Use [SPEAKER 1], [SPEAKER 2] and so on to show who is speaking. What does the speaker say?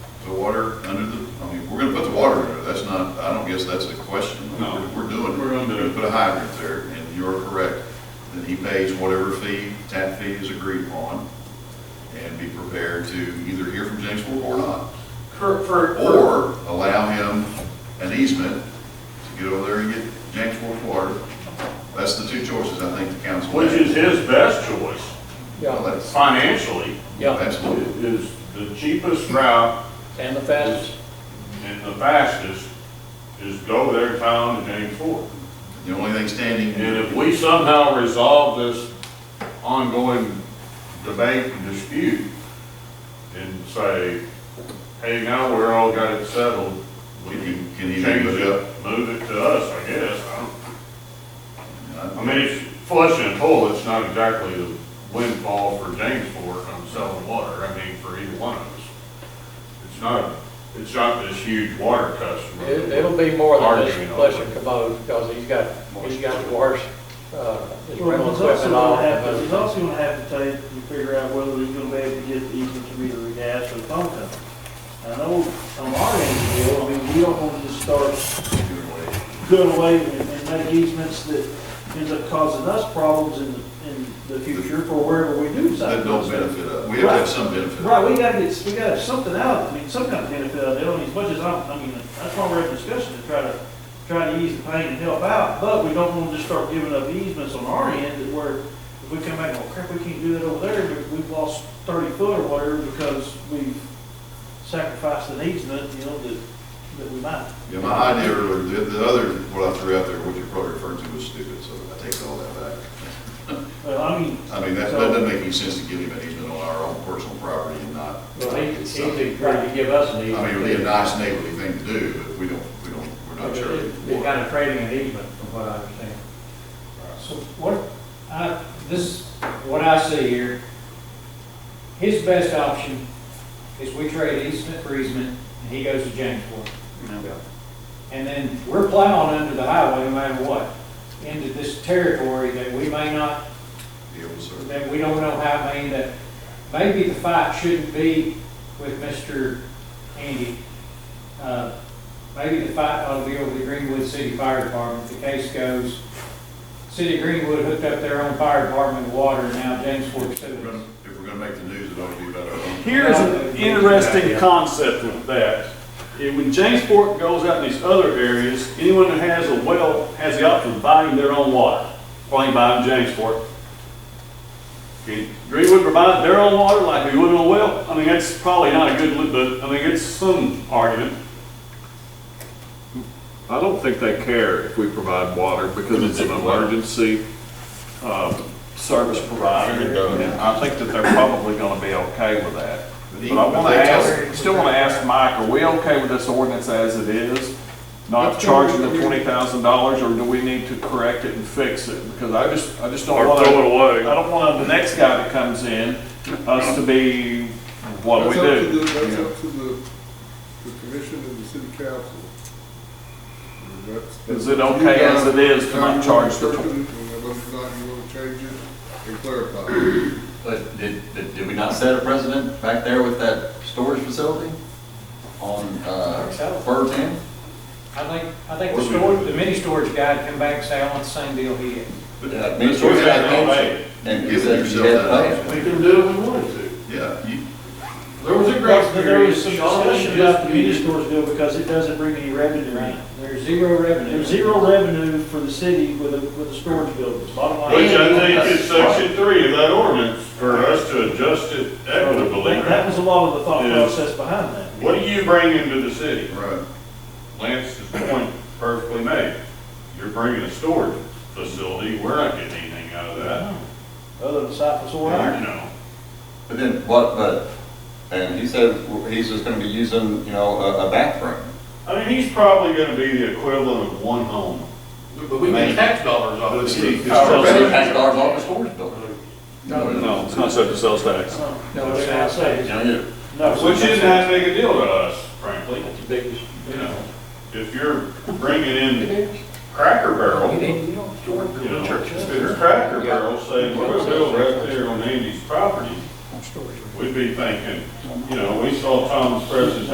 [SPEAKER 1] the water under the, I mean, we're gonna put the water in there, that's not, I don't guess that's the question.
[SPEAKER 2] No.
[SPEAKER 1] We're- We're doing, it.
[SPEAKER 2] We're gonna do it.
[SPEAKER 1] Put a hydrant there, and you're correct, then he pays whatever fee, tap fee is agreed upon, and be prepared to either hear from James Fork or not,
[SPEAKER 3] For, for.
[SPEAKER 1] or allow him an easement to get over there and get James Fork water. That's the two choices I think the council
[SPEAKER 2] Which
[SPEAKER 1] has.
[SPEAKER 2] is his best choice
[SPEAKER 1] Well,
[SPEAKER 4] Yeah,
[SPEAKER 1] that's-
[SPEAKER 2] financially,
[SPEAKER 4] yeah,
[SPEAKER 1] Absolutely.
[SPEAKER 2] is the cheapest route
[SPEAKER 4] and the fastest.
[SPEAKER 2] and the fastest is go there town to James Fork.
[SPEAKER 1] The only thing standing,
[SPEAKER 2] And if we somehow resolve this ongoing debate and dispute and say, hey, now we're all got it settled, we can
[SPEAKER 1] Can
[SPEAKER 2] change
[SPEAKER 1] you move it
[SPEAKER 2] it, move it to us, I guess. I don't- I
[SPEAKER 1] I
[SPEAKER 2] mean, it's flushing a toilet, it's not exactly a windfall for James Fork on selling water, I mean, for either one of us. It's not, it's not this huge water customer.
[SPEAKER 4] It- It'll be more than
[SPEAKER 2] Arguing
[SPEAKER 4] just
[SPEAKER 2] over it.
[SPEAKER 4] flush and commode, because he's got, he's got the worst, uh, his
[SPEAKER 5] Well,
[SPEAKER 4] rental
[SPEAKER 5] he's also
[SPEAKER 4] equipment all.
[SPEAKER 5] gonna have to, he's also gonna have to take and figure out whether he's gonna be able to get the easement to meter the gas or the phone company. I know on our end of the deal, I mean, we don't wanna just start doing away and and make easements that ends up causing us problems in, in the future for wherever we do
[SPEAKER 1] that
[SPEAKER 5] decide. to
[SPEAKER 1] don't
[SPEAKER 5] do
[SPEAKER 1] benefit us, we have to have some benefit.
[SPEAKER 5] Right, we gotta get, we gotta have something out, I mean, some kind of benefit out of it, I mean, as much as I, I mean, that's why we're having discussion to try to, try to ease the pain and help out, but we don't wanna just start giving up easements on our end that we're, if we come back, well, crap, we can't do that over there, but we've lost thirty foot or whatever because we've sacrificed an easement, you know, that, that we might.
[SPEAKER 1] Yeah, my idea, or the, the other, what I threw out there, what you're probably referring to was stupid, so I take all that back.
[SPEAKER 5] Well, I mean,
[SPEAKER 1] I mean, that, that doesn't make any sense to give him an easement on our own personal property and not.
[SPEAKER 4] Well, he,
[SPEAKER 1] It's
[SPEAKER 4] he's
[SPEAKER 1] not-
[SPEAKER 4] agreed to give us an
[SPEAKER 1] I
[SPEAKER 4] easement.
[SPEAKER 1] mean, it would be a nice neighborly thing to do, but we don't, we don't, we're not sure.
[SPEAKER 4] He's kind of trading an easement, from what I understand.
[SPEAKER 6] So what, I, this, what I see here, his best option is we trade easement for easement, and he goes to Jamesport. And then we're plowing under the highway no matter what, into this territory that we may not,
[SPEAKER 1] Be able to serve.
[SPEAKER 6] that we don't know how, I mean, that maybe the fight shouldn't be with Mr. Andy. Uh, Maybe the fight ought to be over the Greenwood City Fire Department, the case goes, City of Greenwood hooked up their own fire department with water, and now James Fork
[SPEAKER 1] If we're
[SPEAKER 6] Sewage.
[SPEAKER 1] gonna- if we're gonna make the news, it ought to be about our own.
[SPEAKER 2] Here's an interesting concept with that. And When Jamesport goes out in these other areas, anyone that has a well has the option of buying their own water. Why ain't buying Jamesport? Can Greenwood provide their own water like we would on a well? I mean, that's probably not a good, li- but, I mean, it's some argument.
[SPEAKER 7] I don't think they care if we provide water because it's an emergency um, service provider. And I think that they're probably going to be okay with that. But I want to ask, still want to ask Mike, are we okay with this ordinance as it is? Not charging the twenty thousand dollars or do we need to correct it and fix it? Because I just, I just don't
[SPEAKER 2] Or
[SPEAKER 7] want to.
[SPEAKER 2] throw it away.
[SPEAKER 7] I don't want the next guy that comes in, us to be, what do we
[SPEAKER 8] That's up to
[SPEAKER 7] do?
[SPEAKER 8] the, that's up to the, the commission and the city council. And that's-
[SPEAKER 7] Is it okay as it is to not charge the twenty?
[SPEAKER 8] And Unless or not you want to change it and clarify.
[SPEAKER 9] But did, did did we not set a precedent back there with that storage facility on, uh, Burton?
[SPEAKER 6] I think, I think the storage, the mini storage guy would come back and say, I want the same deal he had.
[SPEAKER 9] Yeah, me and George had a motion, And he
[SPEAKER 1] Give
[SPEAKER 9] said
[SPEAKER 1] yourself
[SPEAKER 9] you had to
[SPEAKER 1] that
[SPEAKER 9] pay.
[SPEAKER 1] option.
[SPEAKER 2] We can do it if we wanted to.
[SPEAKER 1] Yeah, you,
[SPEAKER 2] There was a
[SPEAKER 5] but there was some discussion about the mini stores deal because it doesn't bring any revenue in.
[SPEAKER 6] There's zero revenue.
[SPEAKER 5] There's zero revenue for the city with the, with the storage buildings, bottom line.
[SPEAKER 2] Which I
[SPEAKER 9] think is section
[SPEAKER 2] three of that ordinance for us to adjust it
[SPEAKER 5] That that was a lot of the thought
[SPEAKER 2] Yeah.
[SPEAKER 5] process behind that.
[SPEAKER 2] What do you bring into the city?
[SPEAKER 1] right.
[SPEAKER 2] Lance's point perfectly made. You're bringing a storage facility, we're not getting anything out of that.
[SPEAKER 5] Other than Cypress Oil.
[SPEAKER 2] You know,
[SPEAKER 9] But then, what, but, and he said he's just gonna be using, you know, a, a bathroom.
[SPEAKER 2] I mean, he's probably gonna be the equivalent of one home.
[SPEAKER 10] But we pay tax dollars off of
[SPEAKER 1] But
[SPEAKER 10] the
[SPEAKER 1] it's-
[SPEAKER 10] city.
[SPEAKER 1] it's-
[SPEAKER 2] Oh,
[SPEAKER 9] So they tax dollars off the storage building.
[SPEAKER 7] No, it's not subject to sales tax.
[SPEAKER 5] No, that's what I say.
[SPEAKER 9] You know, you-
[SPEAKER 5] No.
[SPEAKER 2] Which isn't that big a deal to us, frankly,
[SPEAKER 4] It's the biggest.
[SPEAKER 2] you know. If you're bringing in Cracker Barrel, you know, if it's Cracker Barrel, say, we're gonna build right there on Andy's property, we'd be thinking, you know, we saw Thomas Press's